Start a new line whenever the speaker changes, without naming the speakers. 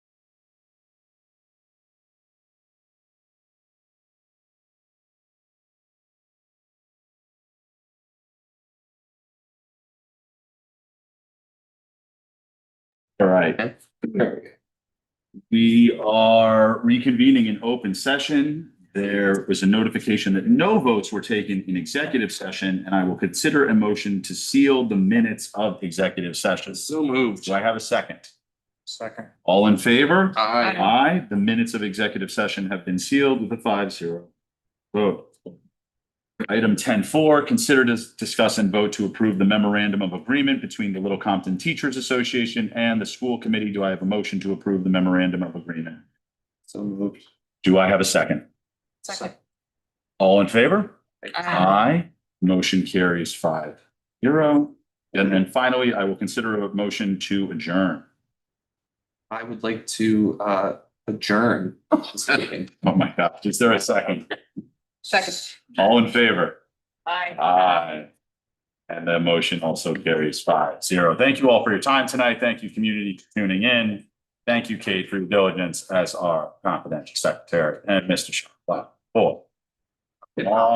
All right.
Okay.
We are reconvening in open session. There was a notification that no votes were taken in executive session, and I will consider a motion to seal the minutes of executive sessions.
So moved.
Do I have a second?
Second.
All in favor?
Aye.
Aye. The minutes of executive session have been sealed with a five zero vote. Item ten four, consider to discuss and vote to approve the memorandum of agreement between the Little Compton Teachers Association and the school committee. Do I have a motion to approve the memorandum of agreement?
So moved.
Do I have a second?
Second.
All in favor?
Aye.
Aye. Motion carries five zero. And then finally, I will consider a motion to adjourn.
I would like to uh adjourn this meeting.
Oh my gosh, is there a second?
Second.
All in favor?
Aye.
Aye. And the motion also carries five zero. Thank you all for your time tonight. Thank you, community, for tuning in. Thank you, Kate, for your diligence as our confidential secretary and Mr. Shaw. Wow. Cool.